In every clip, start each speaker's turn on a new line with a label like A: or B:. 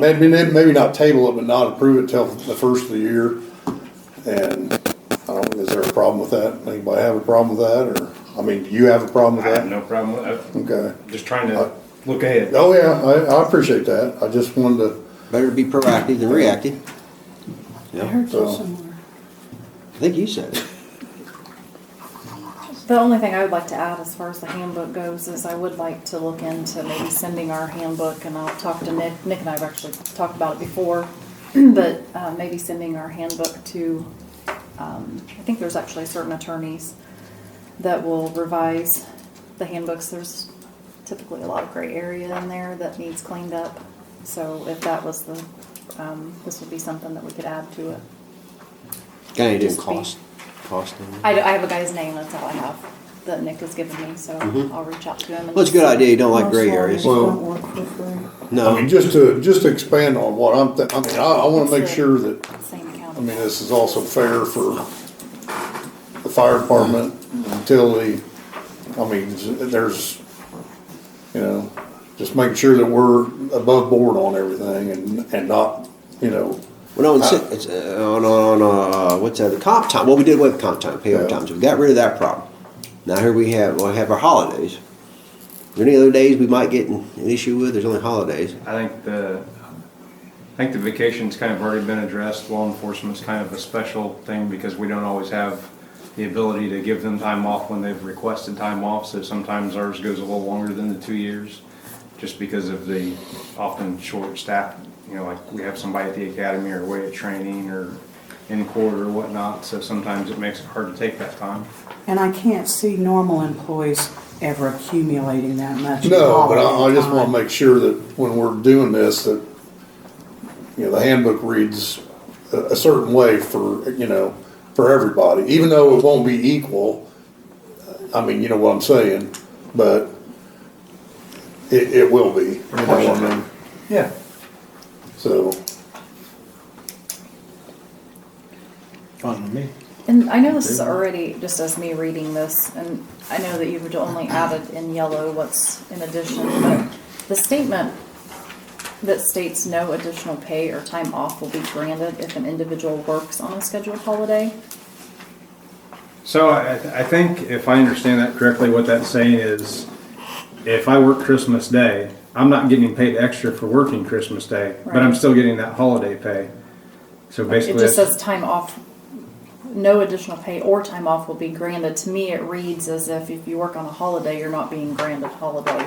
A: Maybe, maybe not table it, but not approve it till the first of the year. And I don't, is there a problem with that? Anybody have a problem with that, or, I mean, do you have a problem with
B: I
A: that?
B: have no problem with
A: Okay.
B: that. Just trying to look ahead.
A: Oh, yeah, I, I appreciate that. I just wanted to,
C: Better be proactive than reactive.
D: I
C: Yeah,
D: heard you
A: So-
D: somewhere.
C: I think you said it.
E: The only thing I would like to add as far as the handbook goes is I would like to look into maybe sending our handbook, and I'll talk to Nick, Nick and I have actually talked about it before, but uh, maybe sending our handbook to, um, I think there's actually certain attorneys that will revise the handbooks. There's typically a lot of gray area in there that needs cleaned up. So if that was the, um, this would be something that we could add to it.
C: Kind of didn't
E: Just be-
C: cost, cost anything.
E: I, I have a guy's name, that's all I have, that Nick has given me, so
A: Mm-hmm.
C: Mhm.
E: I'll reach out to him. and
C: Well, it's a good idea. You don't like
D: Most
C: gray
D: lawyers
C: areas.
D: don't work for free.
A: I
C: No.
A: mean, just to, just to expand on what I'm, thi- I mean, I, I wanna make sure that,
E: Same
A: I
E: account.
A: mean, this is also fair for the fire department, utility. I mean, there's, you know, just making sure that we're above board on everything and, and not, you know,
C: Well, no, it's, it's uh, on, on, on, uh, what's that, the comp time, well, we did away with comp time, payroll
A: Yeah.
C: time, so we got rid of that problem. Now here we have, well, we have our holidays. Are there any other days we might get an, an issue with? There's only holidays.
B: I think the, I think the vacation's kind of already been addressed. Law enforcement's kind of a special thing because we don't always have the ability to give them time off when they've requested time off. So sometimes ours goes a little longer than the two years, just because of the often short staff. You know, like we have somebody at the academy or away at training or in court or whatnot. So sometimes it makes it hard to take that time.
D: And I can't see normal employees ever accumulating that much.
A: No, but I, I
D: holiday
A: just wanna
D: time.
A: make sure that when we're doing this, that, you know, the handbook reads a, a certain way for, you know, for everybody, even though it won't be equal. I mean, you know what I'm saying, but it, it will be, you know what I mean,
B: Yeah.
A: so.
F: Fine with me.
E: And I know this is already, just as me reading this, and I know that you've only added in yellow what's in addition, but the statement that states no additional pay or time off will be granted if an individual works on a scheduled holiday.
B: So I, I think if I understand that correctly, what that's saying is, if I work Christmas Day, I'm not getting paid extra for working Christmas Day, but I'm
E: Right.
B: still getting that holiday pay. So
E: It
B: basically,
E: just
B: that's-
E: says time off, no additional pay or time off will be granted. To me, it reads as if if you work on a holiday, you're not being granted holiday.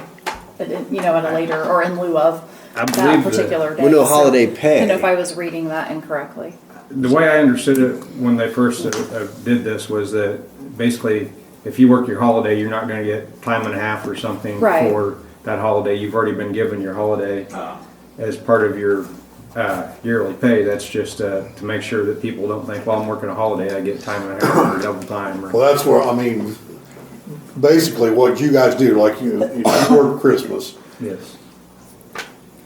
E: But it- You know, at a later or in lieu of
B: I
E: that
B: believe that-
E: particular day.
C: Well, no
E: So,
C: holiday
E: I
C: pay.
E: don't know if I was reading that incorrectly.
B: the way I understood it when they first uh, uh, did this was that basically, if you work your holiday, you're not gonna get time and a half or something
E: Right.
B: for that holiday. You've already been given your holiday as part of your, uh, yearly pay. That's just, uh, to make sure that people don't think, well, I'm working a holiday, I get time and a half or double time or.
A: Well, that's where, I mean, basically what you guys do, like you, you work Christmas,
B: Yes.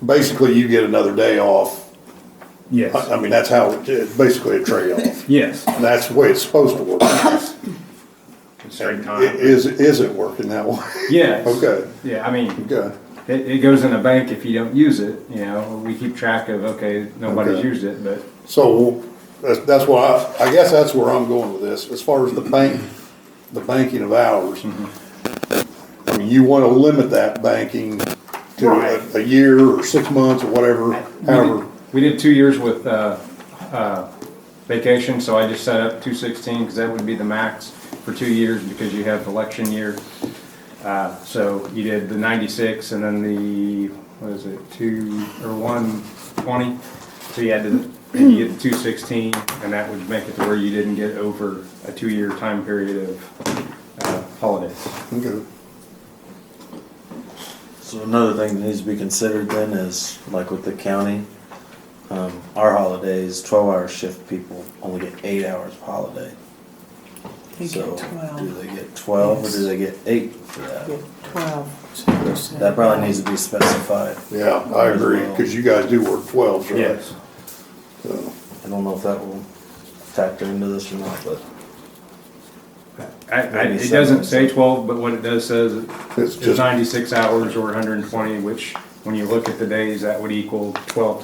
A: basically you get another day off. I, I
B: Yes.
A: mean, that's how, it's basically a trade-off.
B: Yes.
A: And that's the way it's supposed to work.
B: Straight
A: It Is, is it working that way?
B: Yes.
A: Okay.
B: Yeah, I mean,
A: Okay,
B: it, it goes in the bank if you don't use it, you know, we keep track of, okay, nobody's
A: Okay.
B: used it, but
A: so that's, that's why, I, I guess that's where I'm going with this, as far as the bank, the banking of hours. I mean, you wanna limit that banking to
B: Right.
A: a, a year or six months or whatever, however.
B: We did two years with, uh, uh, vacation, so I just set up two sixteen, cause that would be the max for two years, because you have election year. Uh, so you did the ninety-six and then the, what is it, two, or one twenty? So you had to, and you get the two sixteen, and that would make it to where you didn't get over a two-year time period of, uh, holidays.
A: Okay.
F: So another thing that needs to be considered then is, like with the county, um, our holidays, twelve hour shift people only get eight hours of holiday.
D: They
F: So
D: get
F: Do
D: twelve,
F: they get twelve or do they get eight for that?
D: get twelve. so it's, uh,
F: That probably needs to be specified.
A: Yeah, I agree, cause you guys do work twelves, right? So,
F: I don't know if that will factor into this or not, but
B: I, I,
F: Maybe
B: it
F: seven.
B: doesn't say twelve, but what it does says
A: It's
B: is
A: just-
B: ninety-six hours or hundred and twenty, which, when you look at the days, that would equal twelve